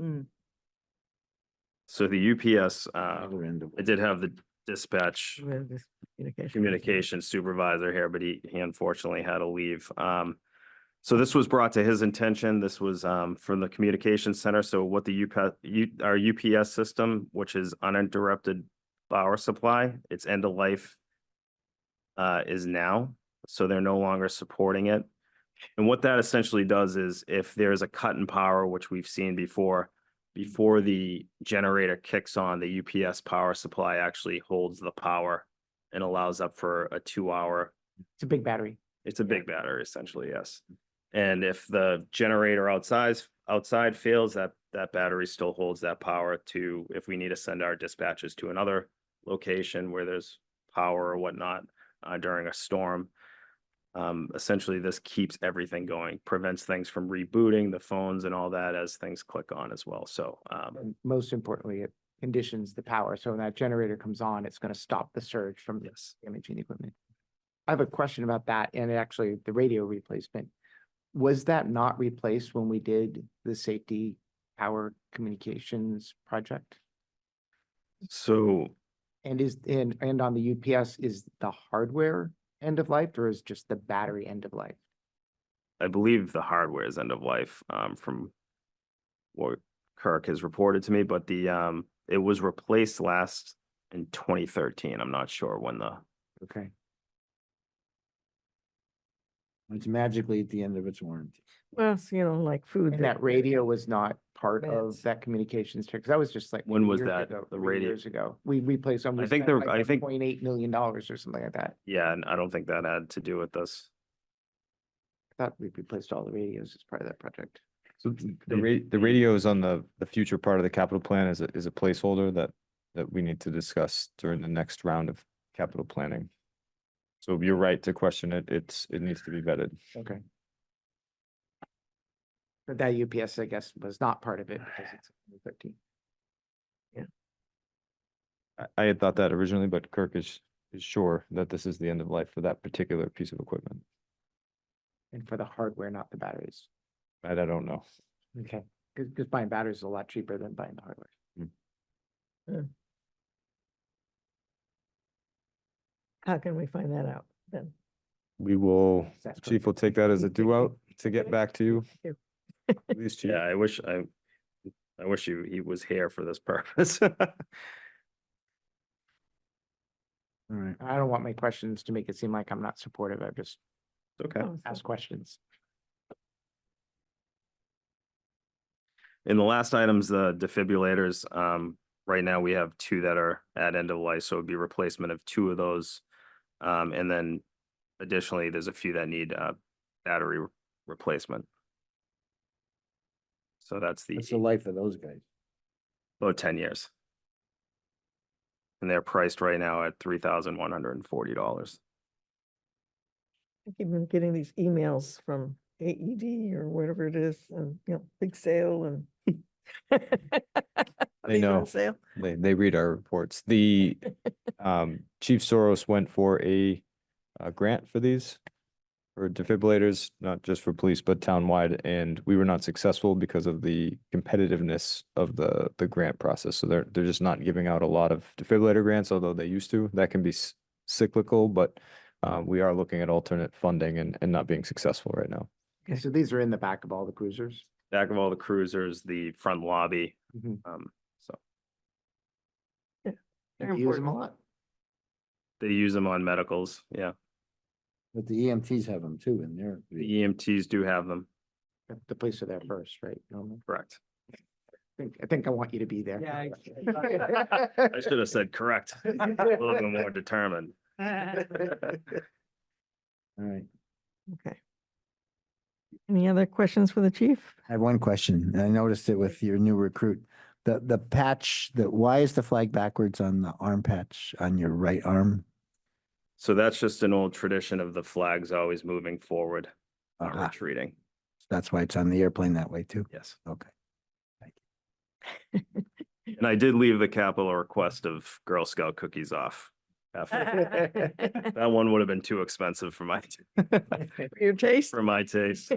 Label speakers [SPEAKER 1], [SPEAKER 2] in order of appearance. [SPEAKER 1] Mm.
[SPEAKER 2] So the UPS, uh,
[SPEAKER 3] Other end of
[SPEAKER 2] I
[SPEAKER 3] it.
[SPEAKER 2] did have the dispatch
[SPEAKER 1] where this communication.
[SPEAKER 2] communication supervisor here, but he, he unfortunately had to leave. Um, so this was brought to his intention. This was, um, from the communication center. So what the UP, U, our UPS system, which is uninterrupted power supply, its end of life uh, is now, so they're no longer supporting it. And what that essentially does is if there's a cut in power, which we've seen before, before the generator kicks on, the UPS power supply actually holds the power and allows up for a two hour.
[SPEAKER 1] It's a big battery.
[SPEAKER 2] It's a big battery essentially, yes. And if the generator outside, outside fails, that, that battery still holds that power to, if we need to send our dispatches to another location where there's power or whatnot, uh, during a storm. Um, essentially, this keeps everything going, prevents things from rebooting the phones and all that as things click on as well. So, um,
[SPEAKER 1] And most importantly, it conditions the power. So when that generator comes on, it's going to stop the surge from
[SPEAKER 2] yes.
[SPEAKER 1] damaging the equipment. I have a question about that and actually the radio replacement. Was that not replaced when we did the safety power communications project?
[SPEAKER 2] So
[SPEAKER 1] And is, and, and on the UPS, is the hardware end of life or is just the battery end of life?
[SPEAKER 2] I believe the hardware is end of life, um, from what Kirk has reported to me, but the, um, it was replaced last in twenty thirteen. I'm not sure when the,
[SPEAKER 1] Okay.
[SPEAKER 3] It's magically at the end of its warranty.
[SPEAKER 4] Well, it's, you know, like food.
[SPEAKER 1] And that radio was not part of
[SPEAKER 4] Minutes.
[SPEAKER 1] that communications, because that was just like.
[SPEAKER 2] When was
[SPEAKER 1] years
[SPEAKER 2] that,
[SPEAKER 1] ago,
[SPEAKER 2] the
[SPEAKER 1] three
[SPEAKER 2] radio-
[SPEAKER 1] Years ago. We replaced. them. We
[SPEAKER 2] I think
[SPEAKER 1] spent
[SPEAKER 2] the-
[SPEAKER 1] like
[SPEAKER 2] I think-
[SPEAKER 1] Point eight million dollars or something like that.
[SPEAKER 2] yeah, and I don't think that had to do with this.
[SPEAKER 1] I Thought we replaced all the radios as part of that project.
[SPEAKER 5] So th- the
[SPEAKER 2] the-
[SPEAKER 5] ra- the radio is on the, the future part of the capital plan is a, is a placeholder that, that we need to discuss during the next round of capital planning. So you're right to question it. It's, it needs to be vetted.
[SPEAKER 1] Okay. But that UPS, I guess, was not part of it because it's thirteen.
[SPEAKER 5] I, I had thought that originally, but Kirk is, is sure that this is the end of life for that particular piece of equipment.
[SPEAKER 1] And for the hardware, not the batteries.
[SPEAKER 5] And I don't know.
[SPEAKER 1] Okay. Because, buying batteries is a lot cheaper than buying the hardware.
[SPEAKER 4] How can we find that out then?
[SPEAKER 5] We will,
[SPEAKER 1] Is that
[SPEAKER 5] chief
[SPEAKER 1] correct?
[SPEAKER 5] will take that as a due out to get
[SPEAKER 4] Okay.
[SPEAKER 5] back to you.
[SPEAKER 4] Thank
[SPEAKER 5] Please, chief.
[SPEAKER 2] Yeah, I wish I, I wish he, he was here for this purpose.
[SPEAKER 3] All right.
[SPEAKER 1] I don't want my questions to make it seem like I'm not supportive. I just
[SPEAKER 2] Okay.
[SPEAKER 4] Oh, so-
[SPEAKER 1] ask questions.
[SPEAKER 2] And the last item's the defibrillators. Um, right now we have two that are at end of life, so it'd be replacement of two of those. Um, and then additionally, there's a few that need, uh, battery re- replacement. So that's the,
[SPEAKER 3] What's the life of those guys?
[SPEAKER 2] about Oh, ten years. And they're priced right now at three thousand one hundred and forty dollars.
[SPEAKER 4] I keep on getting these emails from AED or whatever it is and, you know, big sale and. Are these on
[SPEAKER 5] know.
[SPEAKER 4] Sale.
[SPEAKER 5] They, they read our reports. The, um, Chief Soros went for a, uh grant for these for defibrillators, not just for police, but townwide, and we were not successful because of the competitiveness of the, the grant process. So they're, they're just not giving out a lot of defibrillator grants, although they used to. That can be s- cyclical, but, uh, we are looking at alternate funding and, and not being successful right now.
[SPEAKER 1] Okay, so these are in the back of all the cruisers.
[SPEAKER 2] Back of all the cruisers, the front lobby,
[SPEAKER 1] Mhm.
[SPEAKER 2] um, so
[SPEAKER 4] They're
[SPEAKER 1] Do you Use them a
[SPEAKER 4] important.
[SPEAKER 1] lot.
[SPEAKER 2] they use them on medicals, yeah.
[SPEAKER 3] But the EMTs have them too in there.
[SPEAKER 2] The EMTs do have them,
[SPEAKER 1] The- The police are there first, right? Normally.
[SPEAKER 2] correct.
[SPEAKER 1] I think, I think I want you to be there.
[SPEAKER 2] I should have said correct. A little bit more determined.
[SPEAKER 3] All right.
[SPEAKER 4] Okay. Any other questions for the chief?
[SPEAKER 3] I have one question. and I noticed it with your new recruit. The, the patch, the, why is the flag backwards on the arm patch on your right arm?
[SPEAKER 2] So that's just an old tradition of the flags always moving forward, not
[SPEAKER 3] Aha,
[SPEAKER 2] retreating.
[SPEAKER 3] That's why it's on the airplane that way too.
[SPEAKER 2] Yes.
[SPEAKER 3] Okay.
[SPEAKER 2] And I did leave the capital request of Girl Scout cookies off. after- That one would have been too expensive for my,
[SPEAKER 4] Your taste?
[SPEAKER 2] for my taste.